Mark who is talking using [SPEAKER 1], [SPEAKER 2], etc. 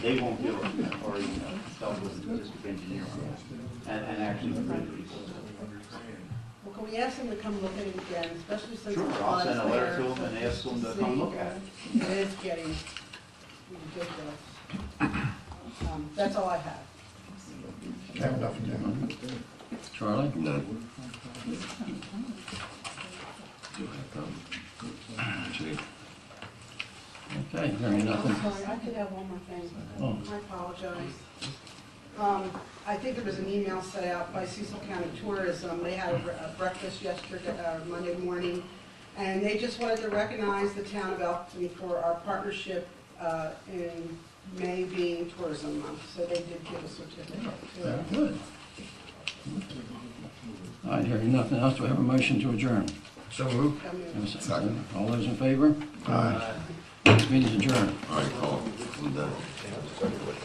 [SPEAKER 1] They won't do it, or, you know, tell the district engineer on it, and, and actually the bridge
[SPEAKER 2] Well, can we ask them to come look at it again, especially since the
[SPEAKER 1] Sure, I'll
[SPEAKER 2] flood is
[SPEAKER 1] send a letter to
[SPEAKER 2] there?
[SPEAKER 1] them and ask them to come look at it.
[SPEAKER 2] It is getting ridiculous. Um, That's all I have.
[SPEAKER 3] Have nothing, Jim. Charlie?
[SPEAKER 4] None. Do I come? Chief?
[SPEAKER 3] Okay, hearing nothing.
[SPEAKER 2] I'm sorry, I could have one more thing.
[SPEAKER 3] Oh.
[SPEAKER 2] I apologize. Um, I think there was an email set out by Cecil County Tourism. They had a bre- a breakfast yesterday, uh, Monday morning, and they just wanted to recognize the town of Elkton for our partnership uh, in May being Tourism Month. So they did give a certificate to
[SPEAKER 3] Very
[SPEAKER 2] it.
[SPEAKER 3] good. All right, hearing nothing else, do I have a motion to adjourn?
[SPEAKER 4] So moved.
[SPEAKER 2] I mean,
[SPEAKER 3] Have a second? All those in favor? Aye. This meeting is adjourned.
[SPEAKER 4] All right, call. I'm done.